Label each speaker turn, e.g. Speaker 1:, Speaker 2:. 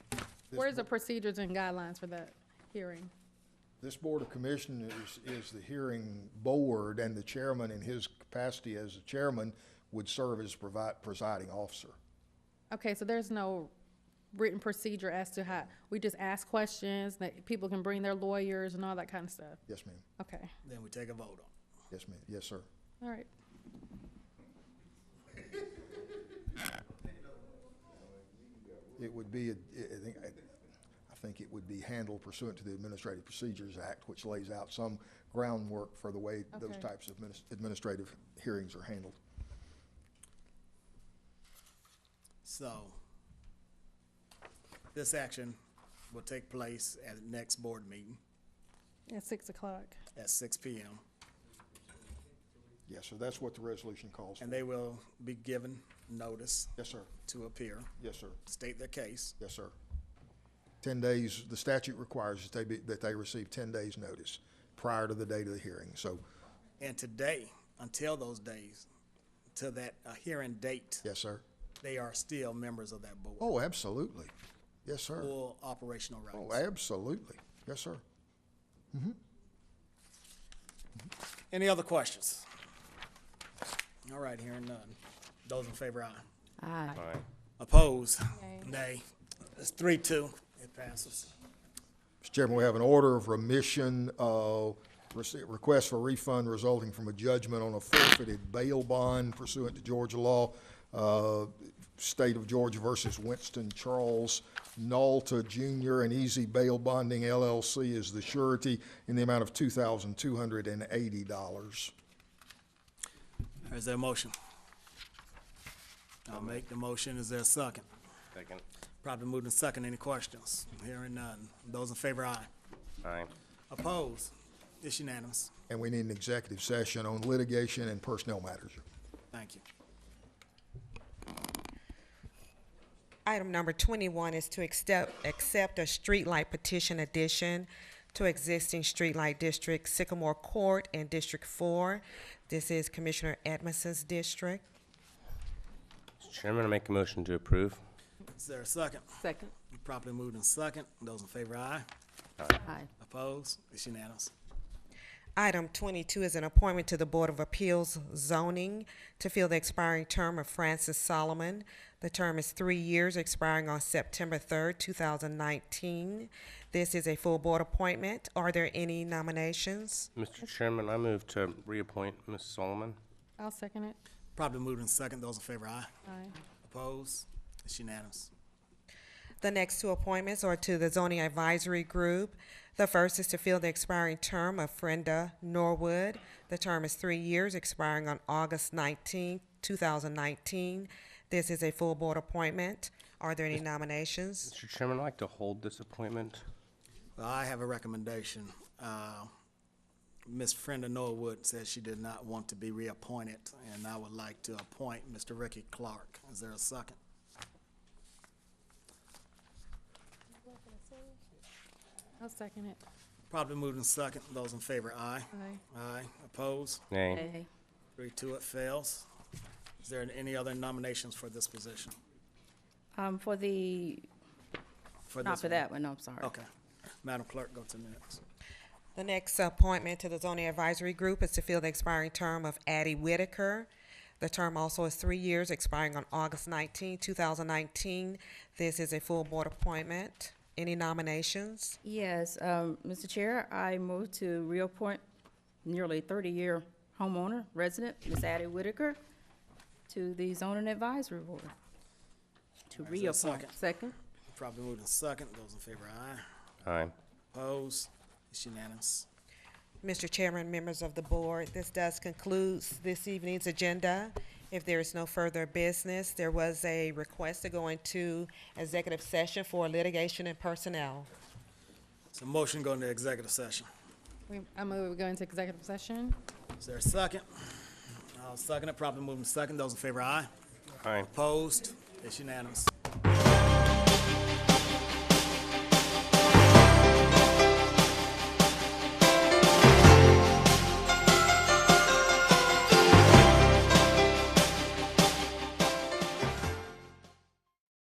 Speaker 1: This
Speaker 2: Where's the
Speaker 1: bo-
Speaker 2: procedures and guidelines for that hearing?
Speaker 1: This Board of Commissioners is the hearing board, and the chairman, in his capacity as the chairman, would serve as provi- presiding officer.
Speaker 2: Okay, so there's no written procedure as to how, we just ask questions, that people can bring their lawyers and all that kind of stuff?
Speaker 1: Yes, ma'am.
Speaker 2: Okay,
Speaker 3: Then we take a vote on it.
Speaker 1: Yes, ma'am. Yes, sir.
Speaker 2: all right.
Speaker 1: It would be, a- I I think, I think it would be handled pursuant to the Administrative Procedures Act, which lays out some groundwork for the way those
Speaker 2: Okay.
Speaker 1: types of minis- administrative hearings are handled.
Speaker 3: So this action will take place at the next board meeting
Speaker 2: At six o'clock.
Speaker 3: at six P M.
Speaker 1: Yes, sir. That's what the resolution calls for.
Speaker 3: And they will be given notice
Speaker 1: Yes, sir.
Speaker 3: to appear,
Speaker 1: Yes, sir.
Speaker 3: state their case.
Speaker 1: Yes, sir. Ten days, the statute requires that they be, that they receive ten days' notice prior to the date of the hearing. So,
Speaker 3: And today, until those days, to that uh, hearing date,
Speaker 1: yes, sir.
Speaker 3: they are still members of that board.
Speaker 1: Oh, absolutely. Yes, sir.
Speaker 3: Full operational
Speaker 1: Oh,
Speaker 3: rights.
Speaker 1: absolutely. Yes, sir.
Speaker 3: Any other questions? All right, hearing none. Those in favor, aye.
Speaker 4: Aye.
Speaker 3: Opposed?
Speaker 2: Nay.
Speaker 3: Nay. It's three, two. It passes.
Speaker 1: Mr. Chairman, we have an order of remission of rece- request for refund resulting from a judgment on a forfeited bail bond pursuant to Georgia law, uh, State of Georgia versus Winston Charles. Nalta Jr. and Easy Bail Bonding LLC is the surety in the amount of two thousand two hundred and eighty dollars.
Speaker 3: Is there a motion? I'll make the motion. Is there a second?
Speaker 4: Second.
Speaker 3: Probably moved in second. Any questions? Hearing none. Those in favor, aye.
Speaker 4: Aye.
Speaker 3: Opposed? It's unanimous.
Speaker 1: And we need an executive session on litigation and personnel matters.
Speaker 3: Thank you.
Speaker 5: Item number twenty-one is to accept, accept a streetlight petition addition to existing streetlight district Sycamore Court and District Four. This is Commissioner Edmondson's district.
Speaker 4: Mr. Chairman, I make a motion to approve.
Speaker 3: Is there a second?
Speaker 6: Second.
Speaker 3: Properly moved in second. Those in favor, aye.
Speaker 6: Aye.
Speaker 3: Opposed? It's unanimous.
Speaker 5: Item twenty-two is an appointment to the Board of Appeals zoning to fill the expiring term of Francis Solomon. The term is three years, expiring on September third, two thousand nineteen. This is a full board appointment. Are there any nominations?
Speaker 4: Mr. Chairman, I move to reappoint Ms. Solomon.
Speaker 2: I'll second it.
Speaker 3: Properly moved in second. Those in favor, aye.
Speaker 2: Aye.
Speaker 3: Opposed? It's unanimous.
Speaker 5: The next two appointments are to the zoning advisory group. The first is to fill the expiring term of Frenda Norwood. The term is three years, expiring on August 19, 2019. This is a full board appointment. Are there any nominations?
Speaker 4: Mr. Chairman, I'd like to hold this appointment.
Speaker 3: Well, I have a recommendation. Uh, Ms. Brenda Norwood says she did not want to be reappointed, and I would like to appoint Mr. Ricky Clark. Is there a second?
Speaker 2: I'll second it.
Speaker 3: Probably moved in second. Those in favor, aye.
Speaker 2: Aye.
Speaker 3: Aye. Opposed?
Speaker 4: Nay.
Speaker 6: Nay.
Speaker 3: Three, two, it fails. Is there any other nominations for this position?
Speaker 6: Um, for the, not
Speaker 3: this
Speaker 6: for that one, no, I'm sorry.
Speaker 3: Okay. Madam Clerk, go to the next.
Speaker 5: The next appointment to the zoning advisory group is to fill the expiring term of Addie Whitaker. The term also is three years, expiring on August 19, 2019. This is a full board appointment. Any nominations?
Speaker 6: Yes, um, Mr. Chair, I move to reappoint nearly thirty-year homeowner, resident, Ms. Addie Whitaker, to the zoning advisory board. To
Speaker 3: Is there a
Speaker 6: reappoint.
Speaker 3: second?
Speaker 6: Second.
Speaker 3: Probably moved in second. Those in favor, aye.
Speaker 4: Aye.
Speaker 3: Opposed? It's unanimous.
Speaker 5: Mr. Chairman, members of the board, this does conclude this evening's agenda. If there is no further business, there was a request to go into executive session for litigation and personnel.
Speaker 3: So motion go into executive session.
Speaker 2: We- I move we go into executive session.
Speaker 3: Is there a second? I'll second it, properly moving second, those in favor, aye.
Speaker 4: Aye.
Speaker 3: Opposed? It's unanimous.